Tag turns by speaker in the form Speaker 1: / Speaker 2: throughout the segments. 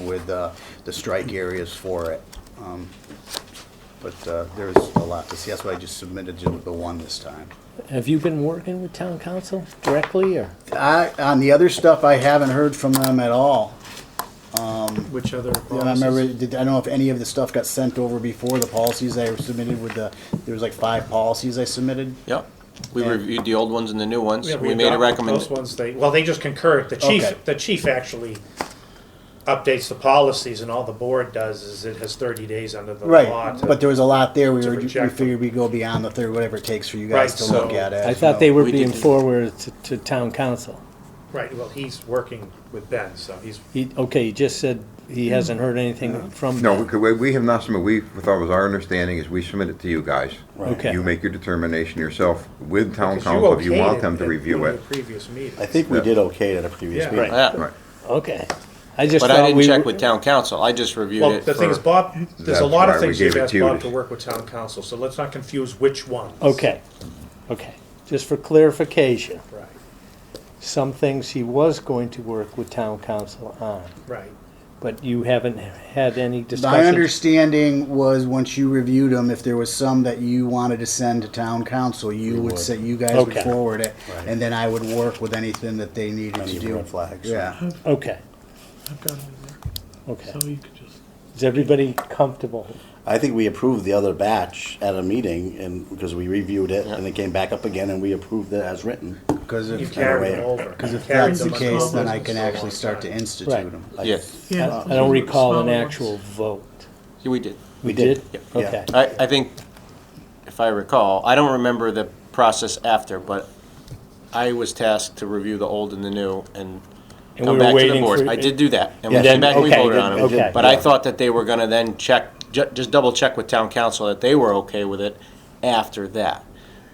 Speaker 1: decided the, uh, the strike areas for it. Um, But uh, there's a lot to see, that's why I just submitted you the one this time.
Speaker 2: Have you been working with town council directly or?
Speaker 1: I, on the other stuff, I haven't heard from them at all.
Speaker 3: Which other
Speaker 1: Yeah, I remember,
Speaker 3: policies?
Speaker 1: did, I don't know if any of the stuff got sent over before the policies I submitted with the, there was like five policies I submitted.
Speaker 4: Yep. We
Speaker 1: And-
Speaker 4: reviewed the old ones and the new ones.
Speaker 3: Yeah,
Speaker 4: we made a
Speaker 3: adopted Those
Speaker 4: recommendation.
Speaker 3: ones, they, well, they just concur, the
Speaker 1: Okay.
Speaker 3: chief, the chief actually updates the policies and all the board does is it has thirty days under the law.
Speaker 1: Right,
Speaker 3: to-
Speaker 1: but there was a lot there, we
Speaker 3: to
Speaker 1: were, we
Speaker 3: reject them.
Speaker 1: figured we'd go beyond the third, whatever it takes for you
Speaker 3: Right,
Speaker 1: guys to look
Speaker 4: so-
Speaker 1: at it.
Speaker 2: I thought they were
Speaker 4: we
Speaker 2: being
Speaker 4: didn't.
Speaker 2: forwarded to, to town council.
Speaker 3: Right, well, he's working with Ben, so he's,
Speaker 2: He, okay, he just said he hasn't heard anything from.
Speaker 5: No,
Speaker 2: them.
Speaker 5: we could- we, we have not submitted, we, with our, was our understanding is we submit it to you guys.
Speaker 2: Okay.
Speaker 5: You make your determination yourself with town
Speaker 3: because you
Speaker 5: council if you
Speaker 3: okayed
Speaker 5: want
Speaker 3: it
Speaker 5: them to
Speaker 3: at
Speaker 5: review
Speaker 3: one of
Speaker 5: it.
Speaker 3: the Previous meeting.
Speaker 6: I think we
Speaker 5: Yeah.
Speaker 6: did okay at a previous
Speaker 3: Yeah.
Speaker 6: meeting.
Speaker 4: Yeah.
Speaker 5: Right.
Speaker 2: Okay. I just
Speaker 4: But I
Speaker 2: thought
Speaker 4: didn't
Speaker 2: we.
Speaker 4: check
Speaker 2: were-
Speaker 4: with town council. I just reviewed
Speaker 3: Well,
Speaker 4: it
Speaker 3: the thing is,
Speaker 4: for,
Speaker 3: Bob, there's
Speaker 5: That's
Speaker 3: a lot of
Speaker 5: why we
Speaker 3: things you've
Speaker 5: gave it
Speaker 3: asked
Speaker 5: to you
Speaker 3: Bob
Speaker 5: to-
Speaker 3: to work with town council, so let's not confuse which one.
Speaker 2: Okay, okay. Just for clarification,
Speaker 3: Right,
Speaker 2: some things he was going to work with town council on,
Speaker 3: right.
Speaker 2: but you haven't had any discussions.
Speaker 1: My understanding was, once you reviewed them, if there was some that you wanted to send to town council, you would say, you guys would
Speaker 2: Okay.
Speaker 1: forward it, and then I would work with anything that they needed
Speaker 6: Any
Speaker 1: to do.
Speaker 6: red flags.
Speaker 1: Yeah,
Speaker 2: Okay,
Speaker 7: I've got it in
Speaker 2: okay.
Speaker 7: there, so you could just.
Speaker 2: Is everybody comfortable?
Speaker 6: I think we approved the other batch at a meeting and, because we reviewed it and it came back up again and we approved it as written.
Speaker 1: because
Speaker 3: You
Speaker 1: if, if
Speaker 3: carried them over. Because if
Speaker 1: that's the case, then I can actually start to institute
Speaker 2: Right.
Speaker 1: them.
Speaker 6: I-
Speaker 4: yes,
Speaker 7: Yeah,
Speaker 2: I I don't recall an actual vote.
Speaker 4: we did.
Speaker 2: We
Speaker 6: did. Yeah.
Speaker 2: Okay.
Speaker 4: I, I think, if I recall, I don't remember the process after, but I was tasked to review the old and the new and
Speaker 2: And
Speaker 4: come
Speaker 2: we were
Speaker 4: back to the
Speaker 2: waiting
Speaker 4: board.
Speaker 2: for-
Speaker 4: I did do that. And we
Speaker 6: Yeah,
Speaker 4: came back and we
Speaker 2: okay,
Speaker 4: voted on
Speaker 2: good, okay.
Speaker 4: it. But I thought that they were gonna then check, ju- just double check with town council that they were okay with it after that.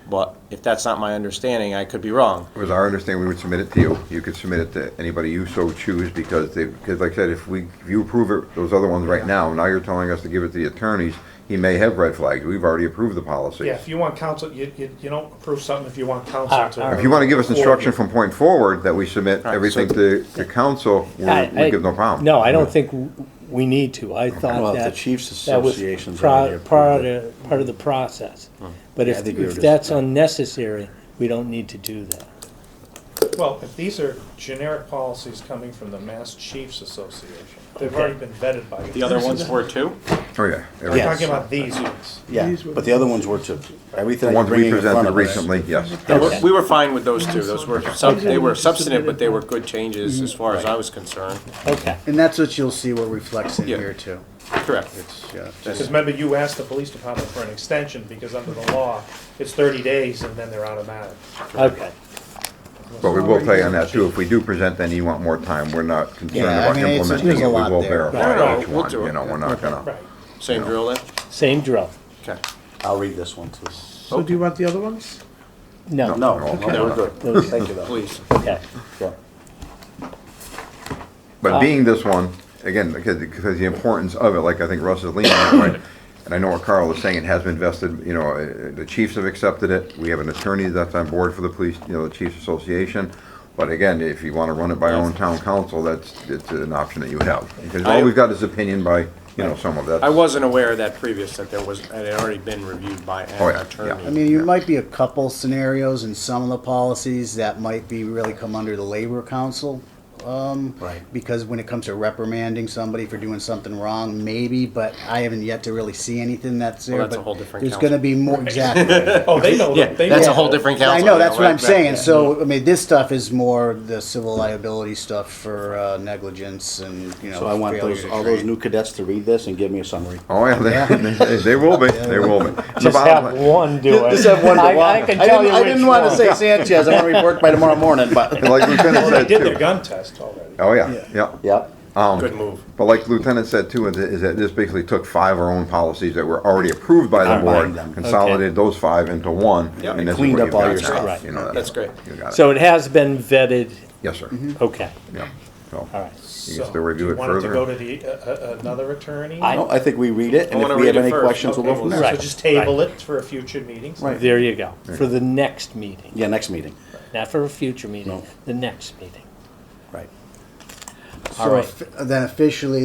Speaker 4: But if that's not my understanding, I could be wrong.
Speaker 5: It was our understanding we would submit it to you. You could submit it to anybody you so choose because they, because like I said, if we, if you approve it, those other ones right now, now you're telling us to give it to the attorneys, he may have red flags. We've already approved the policy.
Speaker 3: Yeah, if you want council, you, you, you don't approve something if you want
Speaker 2: All
Speaker 3: council
Speaker 2: right, all
Speaker 3: to.
Speaker 2: right.
Speaker 5: If you want to give us instruction from point forward that we submit
Speaker 4: Right,
Speaker 5: everything
Speaker 4: so-
Speaker 5: to, to council, we're-
Speaker 2: I- I-
Speaker 5: we give no problem.
Speaker 2: No, I don't think w- we need to. I
Speaker 6: Well,
Speaker 2: thought
Speaker 6: if
Speaker 2: that.
Speaker 6: the Chiefs
Speaker 2: that was
Speaker 6: Association's
Speaker 2: pro-
Speaker 6: already approved
Speaker 2: Part
Speaker 6: it. Oh.
Speaker 2: of, part of the process. But
Speaker 6: I
Speaker 2: if,
Speaker 6: think we were
Speaker 2: if
Speaker 6: just-
Speaker 2: that's unnecessary, we don't need to do that.
Speaker 3: Well, if these are generic policies coming from the Mass Chiefs Association, they've already been vetted by.
Speaker 4: The other ones were too?
Speaker 5: Oh, yeah.
Speaker 3: I'm
Speaker 5: Every-
Speaker 6: Yeah.
Speaker 3: talking about these ones.
Speaker 6: Yeah,
Speaker 7: These were
Speaker 6: but
Speaker 7: the
Speaker 6: the other ones were too. Everything
Speaker 5: The
Speaker 6: that you're
Speaker 5: ones we
Speaker 6: bringing in front
Speaker 5: presented
Speaker 6: of us.
Speaker 5: recently, yes.
Speaker 4: They were- We were fine with those two. Those were, sub- they were substantive, but they were good changes
Speaker 1: Mm-hmm.
Speaker 4: as far as I was concerned.
Speaker 2: Okay.
Speaker 1: And that's what you'll see what reflects in
Speaker 4: Yeah.
Speaker 1: here too.
Speaker 4: Correct.
Speaker 1: It's, yeah,
Speaker 3: Because
Speaker 1: just-
Speaker 3: remember, you asked the police department for an extension, because under the law, it's thirty days and then they're automatic.
Speaker 2: Okay.
Speaker 5: But we will tell you on that too, if we do present, then you want more time, we're not concerned
Speaker 1: Yeah, I
Speaker 5: about
Speaker 1: mean, it's-
Speaker 5: implementing
Speaker 1: there's a
Speaker 5: it, we
Speaker 1: lot
Speaker 5: will
Speaker 1: there.
Speaker 4: No, no,
Speaker 5: verify each
Speaker 4: we'll
Speaker 5: one,
Speaker 4: do it.
Speaker 5: you know, we're not
Speaker 3: Right.
Speaker 5: gonna.
Speaker 4: Same drill then?
Speaker 2: Same drill.
Speaker 4: Okay.
Speaker 6: I'll read this one too.
Speaker 7: So do you want the other ones?
Speaker 2: No.
Speaker 6: No, no,
Speaker 5: Okay.
Speaker 6: we're good.
Speaker 2: Those-
Speaker 6: Thank you though.
Speaker 4: Please.
Speaker 2: Okay.
Speaker 6: Yeah.
Speaker 5: But being this one, again, because, because the importance of it, like I think Russ is leaning that way, and I know what Carl is saying, it has been vested, you know, uh, the chiefs have accepted it, we have an attorney that's on board for the police, you know, the chiefs association. But again, if you wanna run it by our own town council, that's, it's an option that you have. Because all we've got is opinion by, you know, some of that.
Speaker 4: I wasn't aware of that previous, that there was, that it had already been reviewed by
Speaker 5: Oh,
Speaker 4: an
Speaker 5: yeah,
Speaker 1: I
Speaker 4: attorney.
Speaker 1: mean, there might be a couple scenarios in some of the policies that might be really come under the labor council. um,
Speaker 6: Right.
Speaker 1: because when it comes to reprimanding somebody for doing something wrong, maybe, but I haven't yet to really see anything that's there.
Speaker 4: that's a
Speaker 1: but
Speaker 4: whole different
Speaker 1: There's
Speaker 4: council.
Speaker 1: gonna be more, exactly.
Speaker 3: Oh, they know,
Speaker 4: Yeah,
Speaker 3: that- they know.
Speaker 4: that's a
Speaker 3: that.
Speaker 4: whole different
Speaker 1: I
Speaker 4: council.
Speaker 1: know, that's what I'm
Speaker 4: right?
Speaker 1: saying, so, I mean, this stuff is more the civil liability stuff for uh, negligence and, you know.
Speaker 6: So I want
Speaker 1: failure
Speaker 6: those,
Speaker 1: to
Speaker 6: all those
Speaker 1: train.
Speaker 6: new cadets to read this and give me a summary.
Speaker 5: Oh, yeah, they, they- they will be, they will be. The
Speaker 2: Just have
Speaker 5: bottom line-
Speaker 2: one do it. I- I can
Speaker 6: I
Speaker 2: tell
Speaker 6: didn't,
Speaker 2: you
Speaker 6: I didn't
Speaker 2: which
Speaker 6: want to
Speaker 2: one.
Speaker 6: say Sanchez. I want to report by tomorrow morning, but
Speaker 5: Like Lieutenant
Speaker 3: Well, they
Speaker 5: said
Speaker 3: did their
Speaker 5: too.
Speaker 3: gun test already.
Speaker 5: Oh, yeah, yeah.
Speaker 6: yeah.
Speaker 4: Good move.
Speaker 5: But like Lieutenant said too, is- is that this basically took five of our own policies that were already approved by the
Speaker 6: Combined
Speaker 5: board,
Speaker 6: them.
Speaker 5: consolidated those five into one.
Speaker 4: Yeah,
Speaker 5: and
Speaker 4: and
Speaker 5: this is
Speaker 6: cleaned
Speaker 5: what
Speaker 6: up
Speaker 5: you've
Speaker 6: all
Speaker 5: got
Speaker 6: your
Speaker 5: now,
Speaker 6: stuff.
Speaker 2: Right.
Speaker 5: you know,
Speaker 4: That's great.
Speaker 5: You got it.
Speaker 2: So it has been vetted.
Speaker 5: Yes, sir.
Speaker 2: Okay.
Speaker 5: Yeah. So,
Speaker 2: All right.
Speaker 5: You can still review it
Speaker 3: Do you want it to go
Speaker 5: further.
Speaker 3: to the, uh, uh, another attorney?
Speaker 2: I-
Speaker 6: No, I think we read it,
Speaker 4: I
Speaker 6: and
Speaker 4: wanna
Speaker 6: if we
Speaker 4: read
Speaker 6: have
Speaker 4: it
Speaker 6: any
Speaker 4: first.
Speaker 6: questions, we'll go
Speaker 4: Okay,
Speaker 6: from
Speaker 4: we'll
Speaker 6: there.
Speaker 3: So
Speaker 2: Right.
Speaker 3: just table it for a future meeting.
Speaker 6: Right.
Speaker 2: There you go. For the next meeting.
Speaker 6: Yeah, next meeting.
Speaker 2: Not for a future meeting.
Speaker 6: No.
Speaker 2: The next meeting.
Speaker 6: Right.
Speaker 1: So,
Speaker 2: right.
Speaker 1: if- then officially,